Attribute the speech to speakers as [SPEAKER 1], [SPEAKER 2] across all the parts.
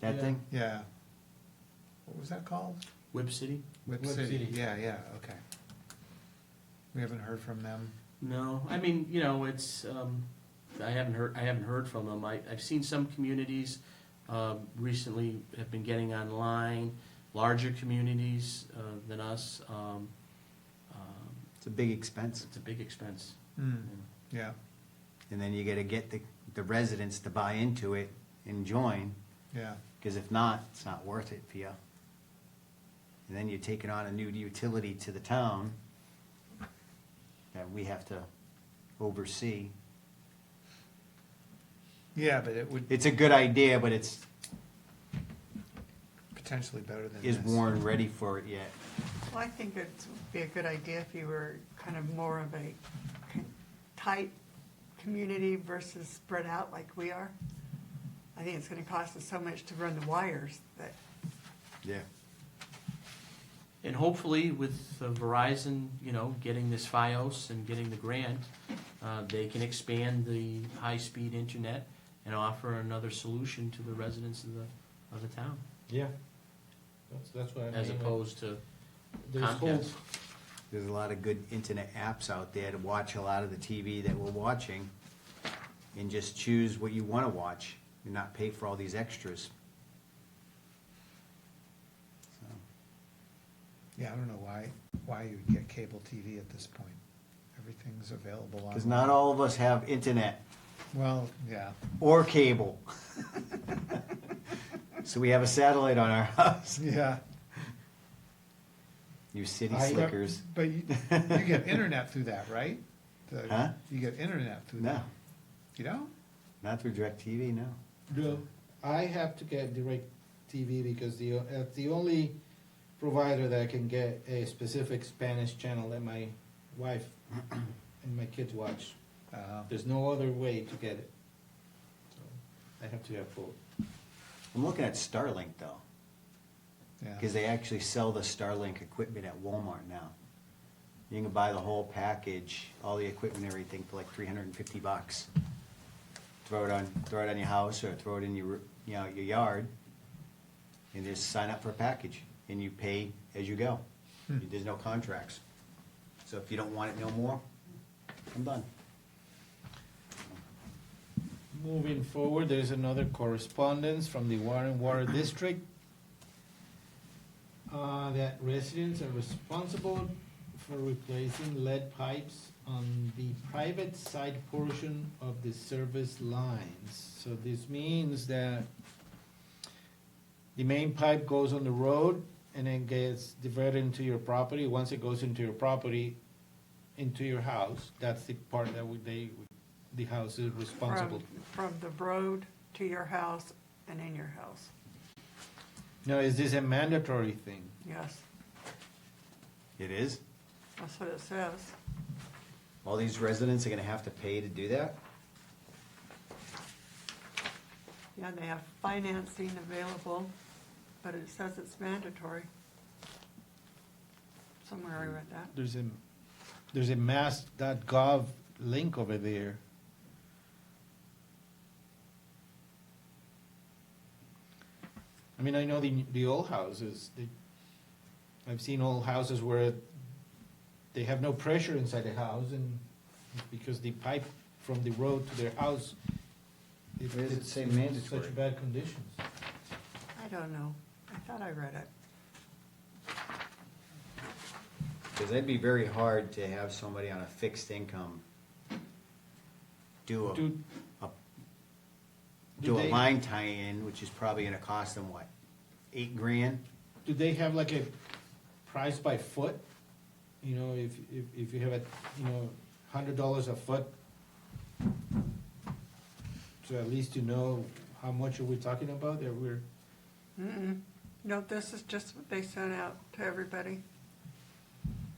[SPEAKER 1] That
[SPEAKER 2] Yeah.
[SPEAKER 1] thing?
[SPEAKER 3] Yeah. What was that called?
[SPEAKER 1] Whip City?
[SPEAKER 3] Whip
[SPEAKER 2] Whip
[SPEAKER 3] City,
[SPEAKER 2] City.
[SPEAKER 3] yeah, yeah, okay. We haven't heard from them.
[SPEAKER 1] No, I mean, you know, it's, um, I haven't heard, I haven't heard from them. I, I've seen some communities, uh, recently have been getting online, larger communities, uh, than us, um, um,
[SPEAKER 4] It's a big expense.
[SPEAKER 1] it's a big expense.
[SPEAKER 3] Hmm,
[SPEAKER 1] you know.
[SPEAKER 3] yeah,
[SPEAKER 4] And then you gotta get the, the residents to buy into it and join,
[SPEAKER 3] yeah,
[SPEAKER 4] because if not, it's not worth it for you. And then you're taking on a new utility to the town that we have to oversee.
[SPEAKER 3] yeah, but it would
[SPEAKER 4] It's a good idea, but it's,
[SPEAKER 3] potentially better than this.
[SPEAKER 4] is Warren ready for it yet?
[SPEAKER 5] Well, I think it would be a good idea if you were kind of more of a con- tight community versus spread out like we are. I think it's gonna cost us so much to run the wires that,
[SPEAKER 4] Yeah.
[SPEAKER 1] And hopefully with uh, Verizon, you know, getting this FiOS and getting the grant, uh, they can expand the high-speed internet and offer another solution to the residents of the, of the town,
[SPEAKER 2] Yeah. That's, that's what I mean.
[SPEAKER 1] as opposed to
[SPEAKER 2] There's whole,
[SPEAKER 1] Comcast.
[SPEAKER 4] There's a lot of good internet apps out there to watch a lot of the TV that we're watching and just choose what you wanna watch and not pay for all these extras. So.
[SPEAKER 3] Yeah, I don't know why, why you'd get cable TV at this point. Everything's available on.
[SPEAKER 4] Because not all of us have internet
[SPEAKER 3] Well, yeah,
[SPEAKER 4] or cable. So we have a satellite on our house.
[SPEAKER 3] yeah.
[SPEAKER 4] You city
[SPEAKER 3] I-
[SPEAKER 4] slickers.
[SPEAKER 3] But you, you get internet through that, right? The-
[SPEAKER 4] Huh?
[SPEAKER 3] You get internet through that?
[SPEAKER 4] No,
[SPEAKER 3] You don't?
[SPEAKER 4] not through DirecTV, no.
[SPEAKER 2] no, I have to get direct TV because the, uh, the only provider that can get a specific Spanish channel that my wife and my kids watch.
[SPEAKER 3] Uh,
[SPEAKER 2] There's no other way to get it. So I have to have both.
[SPEAKER 4] I'm looking at Starlink though,
[SPEAKER 3] yeah,
[SPEAKER 4] because they actually sell the Starlink equipment at Walmart now. You can buy the whole package, all the equipment, and everything for like three hundred and fifty bucks. Throw it on, throw it on your house or throw it in your, you know, your yard. And just sign up for a package and you pay as you go.
[SPEAKER 3] Hmm.
[SPEAKER 4] There's no contracts. So if you don't want it no more, I'm done.
[SPEAKER 2] Moving forward, there's another correspondence from the Warren Water District uh, that residents are responsible for replacing lead pipes on the private side portion of the service lines. So this means that the main pipe goes on the road and then gets diverted into your property. Once it goes into your property, into your house, that's the part that we, they, the house is responsible
[SPEAKER 5] from, from the road to your house and in your house,
[SPEAKER 2] Now, is this a mandatory thing?
[SPEAKER 5] yes,
[SPEAKER 4] It is?
[SPEAKER 5] that's what it says.
[SPEAKER 4] All these residents are gonna have to pay to do that?
[SPEAKER 5] Yeah, they have financing available, but it says it's mandatory. Somewhere I read that.
[SPEAKER 2] There's a, there's a mass.gov link over there. I mean, I know the, the old houses, the, I've seen old houses where they have no pressure inside the house and because the pipe from the road to their house, it-
[SPEAKER 4] Where does it
[SPEAKER 2] it's
[SPEAKER 4] say
[SPEAKER 2] in
[SPEAKER 4] mandatory?
[SPEAKER 2] Such bad conditions.
[SPEAKER 5] I don't know. I thought I read it.
[SPEAKER 4] Because that'd be very hard to have somebody on a fixed income do
[SPEAKER 2] Do-
[SPEAKER 4] a, a,
[SPEAKER 2] do
[SPEAKER 4] do a
[SPEAKER 2] they-
[SPEAKER 4] line tie-in, which is probably gonna cost them what, eight grand?
[SPEAKER 2] Do they have like a price by foot? You know, if, if, if you have a, you know, hundred dollars a foot? So at least you know how much are we talking about that we're,
[SPEAKER 5] Mm-mm. No, this is just what they sent out to everybody,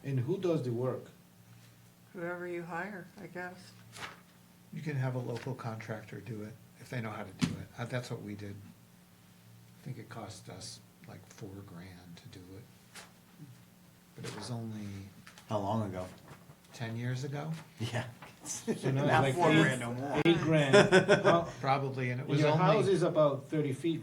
[SPEAKER 2] and who does the work?
[SPEAKER 5] whoever you hire, I guess.
[SPEAKER 3] you can have a local contractor do it if they know how to do it. Uh, That's what we did. I think it cost us like four grand to do it. But it was only
[SPEAKER 4] How long ago?
[SPEAKER 3] ten years ago,
[SPEAKER 4] Yeah.
[SPEAKER 2] So now it's
[SPEAKER 4] Not
[SPEAKER 2] like
[SPEAKER 4] four
[SPEAKER 2] eight-
[SPEAKER 4] grand no more.
[SPEAKER 2] Eight grand. How-
[SPEAKER 3] probably, and it
[SPEAKER 2] And
[SPEAKER 3] was
[SPEAKER 2] your
[SPEAKER 3] only.
[SPEAKER 2] house is about thirty feet